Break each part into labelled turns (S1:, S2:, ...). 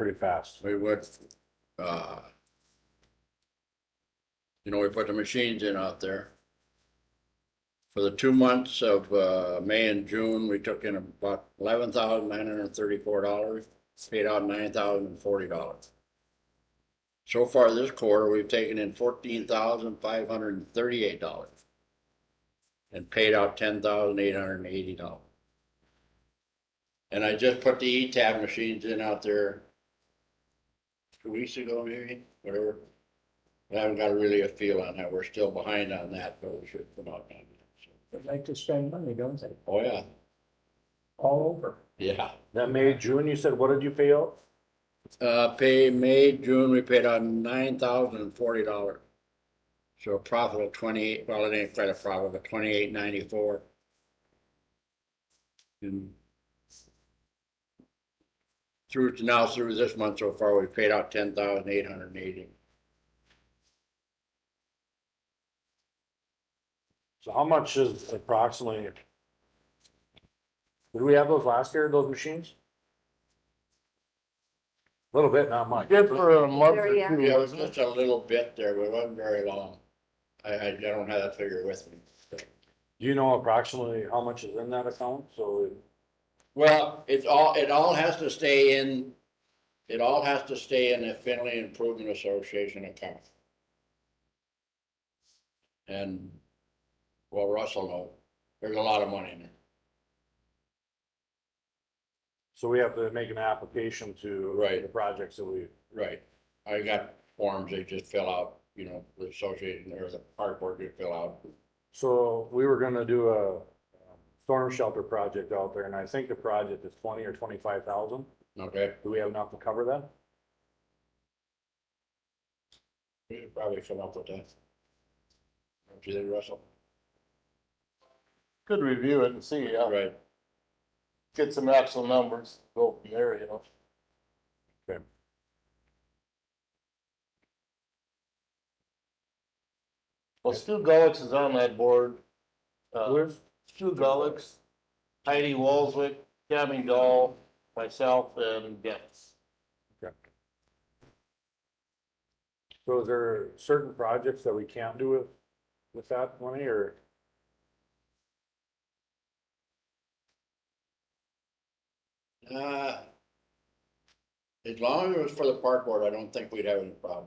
S1: pretty fast.
S2: We worked, uh, you know, we put the machines in out there. For the two months of, uh, May and June, we took in about eleven thousand nine hundred and thirty-four dollars, paid out nine thousand and forty dollars. So far this quarter, we've taken in fourteen thousand five hundred and thirty-eight dollars and paid out ten thousand eight hundred and eighty dollars. And I just put the E-Tab machines in out there two weeks ago, maybe, whatever. I haven't got really a feel on that. We're still behind on that, but we should come out on it. so.
S3: They like to spend money, don't they?
S2: Oh, yeah,
S3: All over.
S2: yeah.
S1: That May, June, you said, what did you pay out?
S2: Uh, pay May, June, we paid out nine thousand and forty dollars. So a profit of twenty-eight, well, it ain't quite a profit, but twenty-eight ninety-four. And through to now, through this month so far, we paid out ten thousand eight hundred and eighty.
S1: So how much is approximately? Did we have those last year, those machines? A Little bit, not much.
S4: Good for a month or
S5: Very
S4: two,
S2: Yeah, it was
S4: wasn't it?
S2: just a little bit there, but it wasn't very long. I, I don't have that figure with me.
S1: Do you know approximately how much is in that account? So
S2: Well, it's all, it all has to stay in, it all has to stay in the Finley Improvement Association account. And, well, Russell know, there's a lot of money in it.
S1: So we have to make an application to.
S2: Right.
S1: The projects that we,
S2: Right. I got forms they just fill out, you know, the association, or the park board you fill out.
S1: so we were gonna do a um, storm shelter project out there and I think the project is twenty or twenty-five thousand.
S2: Okay,
S1: Do we have enough to cover that?
S2: we could probably come up with that. Don't you think, Russell?
S4: Could review it and see, uh,
S2: Right.
S4: get some actual numbers, go from there, you know. Well, Stu Gullicks is on that board. Uh, Stu Gullicks, Heidi Walzwick, Tammy Dahl, myself, and Dennis.
S1: So is there certain projects that we can't do with, with that money or?
S2: Uh, as long as it was for the park board, I don't think we'd have any problem.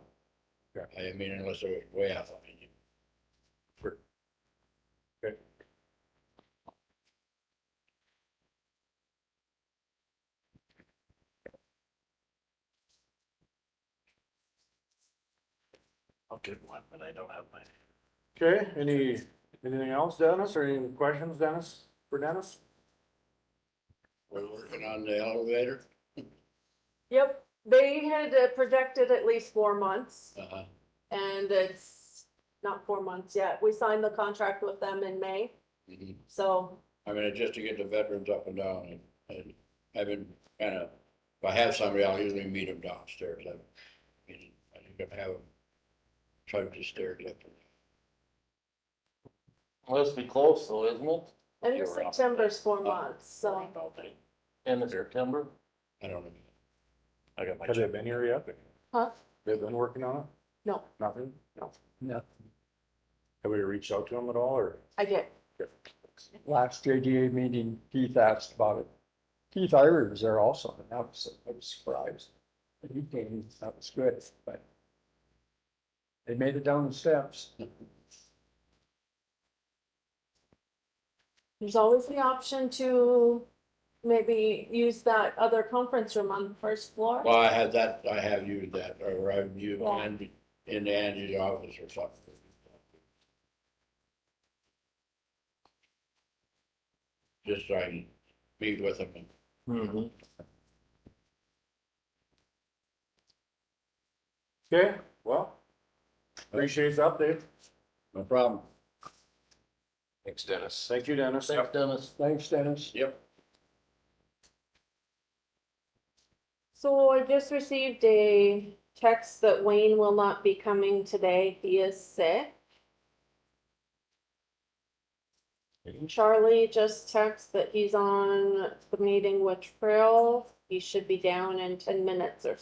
S1: Yeah.
S2: I mean, unless it was way out of opinion.
S1: Sure. Okay.
S4: I'll get one, but I don't have my.
S1: Okay, any, anything else, Dennis, or any questions, Dennis, for Dennis?
S2: We're working on the elevator.
S5: Yep, they had uh, projected at least four months
S2: Uh-huh.
S5: and it's not four months yet. We signed the contract with them in May,
S2: Mhm.
S5: so
S2: I mean, just to get the veterans up and down and, and I've been kind of, if I have somebody, I'll usually meet them downstairs. I, I think I have them charge the stairs up.
S4: Let's be close though, isn't it?
S5: end of
S2: Yeah, we're up.
S5: September's four months, so.
S4: End of September.
S2: I don't know.
S4: I got my.
S1: Have they been here yet?
S5: Huh?
S1: They've been working on it?
S5: No.
S1: Nothing?
S5: No.
S3: Nothing.
S1: Have we reached out to them at all or?
S5: I did.
S3: Last JDA meeting, Keith asked about it. Keith Ira was there also, and that was, I was surprised. that He came, that was good, but they made it down the steps.
S5: There's always the option to maybe use that other conference room on the first floor.
S2: Well, I had that, I have used that, or I've used
S5: Yeah.
S2: Andy, in Andy's office or something. Just so I can meet with him and
S4: Mhm.
S1: Okay, well, appreciate the update.
S2: No problem.
S6: Thanks, Dennis.
S1: Thank you, Dennis.
S4: Thanks, Dennis.
S3: Thanks, Dennis.
S2: Yep.
S5: So I just received a text that Wayne will not be coming today. He is sick. Charlie just texted that he's on the meeting with Trill. He should be down in ten minutes or so.